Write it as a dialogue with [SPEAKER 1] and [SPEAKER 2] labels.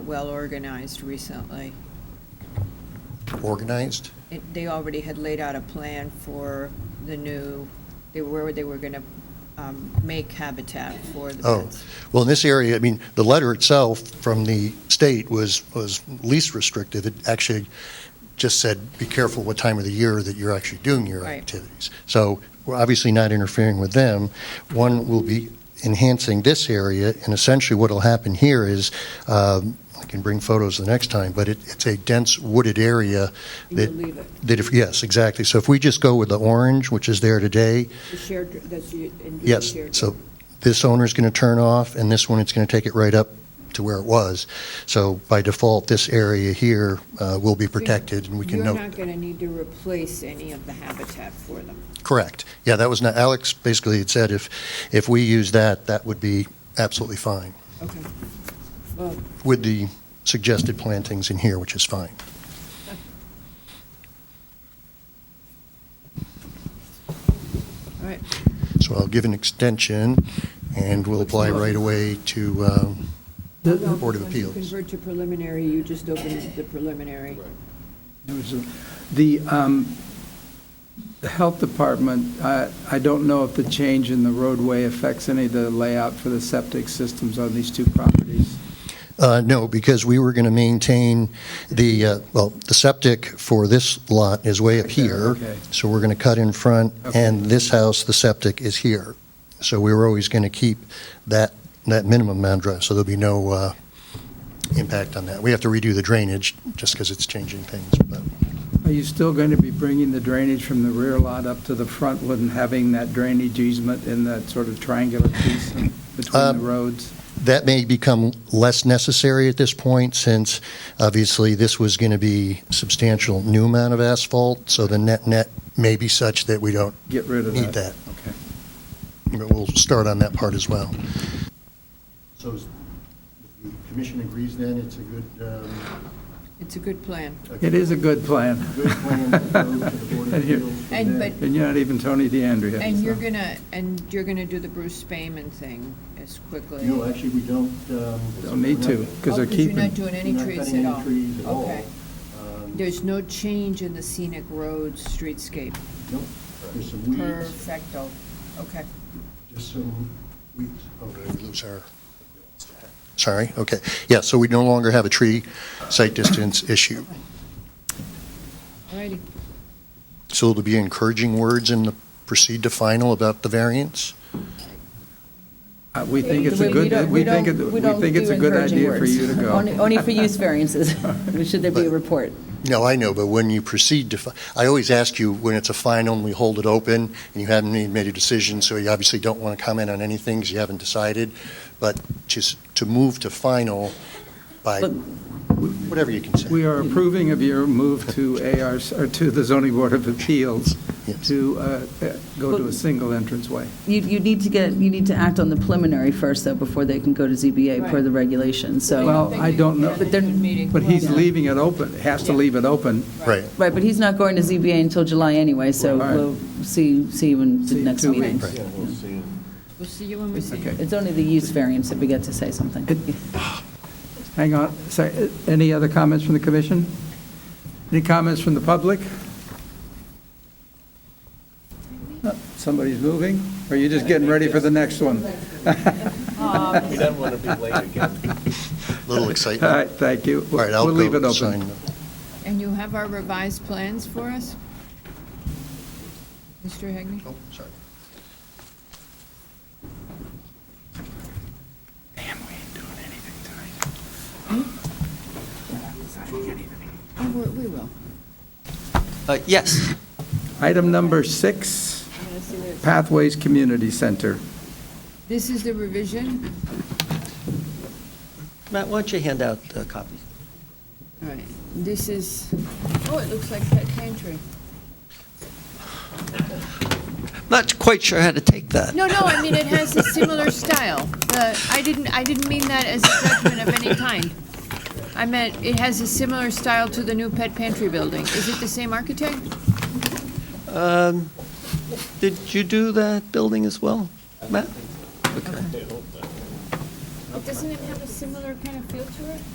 [SPEAKER 1] well-organized recently.
[SPEAKER 2] organized?
[SPEAKER 1] It- They already had laid out a plan for the new, they where they were going to make habitat for the
[SPEAKER 2] Oh.
[SPEAKER 1] pets.
[SPEAKER 2] Well, in this area, I mean, the letter itself from the state was, was least restrictive. It actually just said, be careful what time of the year that you're actually doing your
[SPEAKER 1] Right.
[SPEAKER 2] activities. So we're obviously not interfering with them. One will be enhancing this area, and essentially what'll happen here is, um, I can bring photos the next time, but it, it's a dense wooded area
[SPEAKER 3] And you
[SPEAKER 2] that,
[SPEAKER 3] leave it,
[SPEAKER 2] that if, yes, exactly. So if we just go with the orange, which is there today,
[SPEAKER 3] the shared, that's the individual
[SPEAKER 2] Yes,
[SPEAKER 3] shared-
[SPEAKER 2] so this owner's going to turn off, and this one, it's going to take it right up to where it was. So by default, this area here uh, will be protected, and we can
[SPEAKER 3] You're
[SPEAKER 2] note.
[SPEAKER 3] not going to need to replace any of the habitat for them.
[SPEAKER 2] Correct. Yeah, that was not, Alex basically had said if, if we use that, that would be absolutely fine,
[SPEAKER 3] Okay. Well,
[SPEAKER 2] with the suggested plantings in here, which is fine.
[SPEAKER 3] all right,
[SPEAKER 2] So I'll give an extension, and we'll apply right away to, um,
[SPEAKER 3] Well, no,
[SPEAKER 2] Board of
[SPEAKER 3] once you
[SPEAKER 2] Appeals.
[SPEAKER 3] Convert to preliminary, you just open the preliminary.
[SPEAKER 4] There was a- The, um, the health department, I, I don't know if the change in the roadway affects any of the layout for the septic systems on these two properties.
[SPEAKER 2] Uh, No, because we were going to maintain the, uh, well, the septic for this lot is way up
[SPEAKER 4] Okay,
[SPEAKER 2] here.
[SPEAKER 4] okay.
[SPEAKER 2] So we're going to cut in front,
[SPEAKER 4] Okay.
[SPEAKER 2] and this house, the septic is here. So we were always going to keep that, that minimum amount drive, so there'll be no uh, impact on that. We have to redo the drainage, just because it's changing things, but
[SPEAKER 4] Are you still going to be bringing the drainage from the rear lot up to the front and having that drainage easement in that sort of triangular piece in between the
[SPEAKER 2] Um,
[SPEAKER 4] roads?
[SPEAKER 2] that may become less necessary at this point, since obviously this was going to be substantial new amount of asphalt, so the net-net may be such that we don't
[SPEAKER 4] Get rid of that?
[SPEAKER 2] need that.
[SPEAKER 4] Okay.
[SPEAKER 2] But we'll start on that part as well. So is- the commission agrees then it's a good, um,
[SPEAKER 1] It's a good plan.
[SPEAKER 4] It is a good plan.
[SPEAKER 2] good plan to go to the Board of
[SPEAKER 4] And you're-
[SPEAKER 2] Appeals from
[SPEAKER 1] And-
[SPEAKER 2] there?
[SPEAKER 1] but-
[SPEAKER 4] And you're not even Tony DeAndrea.
[SPEAKER 1] And you're
[SPEAKER 4] so.
[SPEAKER 1] going to, and you're going to do the Bruce Spayman thing as quickly.
[SPEAKER 2] No, actually, we don't. um,
[SPEAKER 4] Don't need to, because
[SPEAKER 1] Oh,
[SPEAKER 4] they're keeping.
[SPEAKER 1] you're not doing any
[SPEAKER 2] we're not
[SPEAKER 1] trees
[SPEAKER 2] cutting
[SPEAKER 1] at
[SPEAKER 2] any
[SPEAKER 1] all?
[SPEAKER 2] trees at all.
[SPEAKER 1] Okay.
[SPEAKER 2] Um,
[SPEAKER 1] There's no change in the scenic roads streetscape?
[SPEAKER 2] nope, There's some weeds,
[SPEAKER 1] Perfecto, okay.
[SPEAKER 2] just some weeds. Oh, did we lose our? Sorry, okay. Yeah, so we no longer have a tree site distance issue.
[SPEAKER 1] All righty.
[SPEAKER 2] So it'll be encouraging words in the proceed to final about the variance?
[SPEAKER 4] Uh, We think it's a
[SPEAKER 5] We
[SPEAKER 4] good,
[SPEAKER 5] don't-
[SPEAKER 4] we think, it- we
[SPEAKER 5] don't
[SPEAKER 4] think it's
[SPEAKER 5] do
[SPEAKER 4] a good
[SPEAKER 5] encouraging
[SPEAKER 4] idea for
[SPEAKER 5] words.
[SPEAKER 4] you to go.
[SPEAKER 5] Only only for use variances, should there be a
[SPEAKER 2] But-
[SPEAKER 5] report.
[SPEAKER 2] No, I know, but when you proceed to, fi- I always ask you when it's a final and we hold it open and you haven't made made a decision, so you obviously don't want to comment on any things you haven't decided, but just to move to final by
[SPEAKER 5] But-
[SPEAKER 2] whatever you can say.
[SPEAKER 4] We are approving of your move to AR, or to the zoning board of appeals
[SPEAKER 2] Yes.
[SPEAKER 4] to uh, uh, go to a single entrance way.
[SPEAKER 5] You, you need to get, you need to act on the preliminary first, though, before they can go to ZBA per
[SPEAKER 1] Right.
[SPEAKER 5] the regulations, so.
[SPEAKER 4] Well, I don't know,
[SPEAKER 5] But they're-
[SPEAKER 4] but he's leaving it open, has to leave it open.
[SPEAKER 2] Right,
[SPEAKER 5] Right, but he's not going to ZBA until July anyway, so
[SPEAKER 4] Right.
[SPEAKER 5] we'll see, see you in
[SPEAKER 4] See
[SPEAKER 5] the
[SPEAKER 4] you in
[SPEAKER 5] next
[SPEAKER 4] two
[SPEAKER 5] meeting.
[SPEAKER 4] weeks.
[SPEAKER 1] We'll see you when we see you.
[SPEAKER 4] Okay.
[SPEAKER 5] It's only the use variance that we get to say something.
[SPEAKER 4] Hang on, sorry, uh, any other comments from the commission? Any comments from the public? Uh, Somebody's moving, or you're just getting ready for the next one?
[SPEAKER 6] We don't want to be late again.
[SPEAKER 2] little
[SPEAKER 4] All
[SPEAKER 2] excitement.
[SPEAKER 4] right, thank you.
[SPEAKER 2] All right, I'll
[SPEAKER 4] We'll leave
[SPEAKER 2] go
[SPEAKER 4] it open.
[SPEAKER 2] sign.
[SPEAKER 1] And you have our revised plans for us? Mr. Hegney?
[SPEAKER 2] Oh, sorry.
[SPEAKER 4] Damn, we ain't doing anything tonight.
[SPEAKER 1] Oh, we we will.
[SPEAKER 6] Uh, Yes.
[SPEAKER 4] Item number six, Pathways Community Center.
[SPEAKER 1] This is the revision?
[SPEAKER 6] Matt, why don't you hand out a copy?
[SPEAKER 1] All right, this is, oh, it looks like pet pantry.
[SPEAKER 6] Not quite sure how to take that.
[SPEAKER 1] No, no, I mean, it has a similar style. The, I didn't, I didn't mean that as a judgment of any kind. I meant, it has a similar style to the new pet pantry building. Is it the same architect?
[SPEAKER 6] Um, Did you do that building as well, Matt?
[SPEAKER 1] Doesn't it have a similar kind of feel to it?